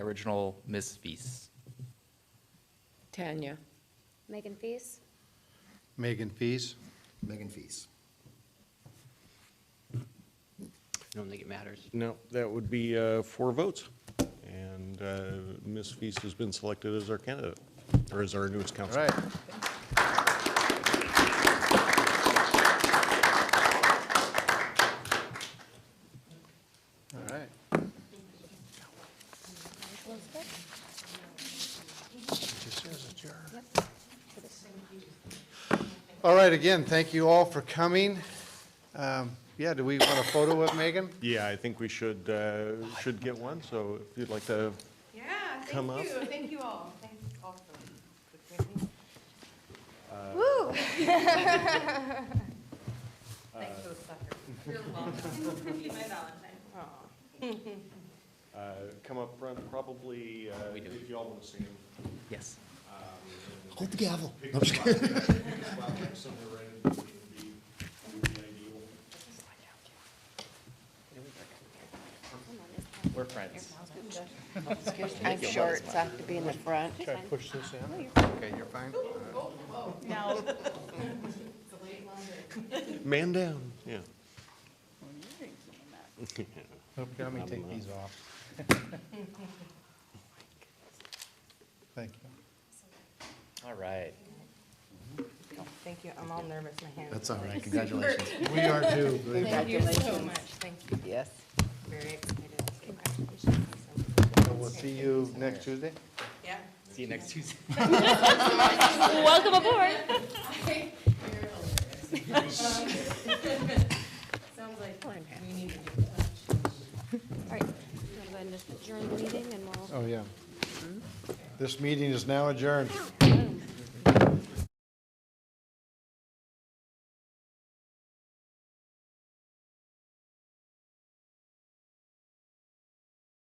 original Ms. Feast. Tanya. Megan Fees, Megan Fees. Megan Fees. I don't think it matters. No, that would be uh, four votes. And uh, Ms. Feast has been selected as our candidate, or as our newest All council. right. All right. All right, again, thank you all for coming. Um, Yeah, do we want a photo with Megan? Yeah, I think we should, uh, should get one, so if you'd like to, Yeah, Come up. thank you, thank you all, thanks all for looking at me. Woo! Thanks for the sucker. You're welcome. Be my Valentine. uh, come up front, probably, uh, if you all want to see him. Yes. Hold the gavel. Pick a spot, pick a spot like somewhere right in between would be- would be ideal. We're friends. I have shorts, I have to be in the front. Try to push this in. Okay, you're fine. Man down, yeah. Okay, let me take uh, these off. Thank you. All right. Thank you, I'm all nervous, my hands. That's all right, congratulations. We are due. Thank you so much, thank you, Yes. very excited. Congratulations. We'll see you next Tuesday. Yeah. See you next Tuesday. Welcome aboard. Sounds like I'm happy. we need to do that. All right, you want to go ahead and just adjourn the meeting and we'll. Oh, yeah. This meeting is now adjourned. Good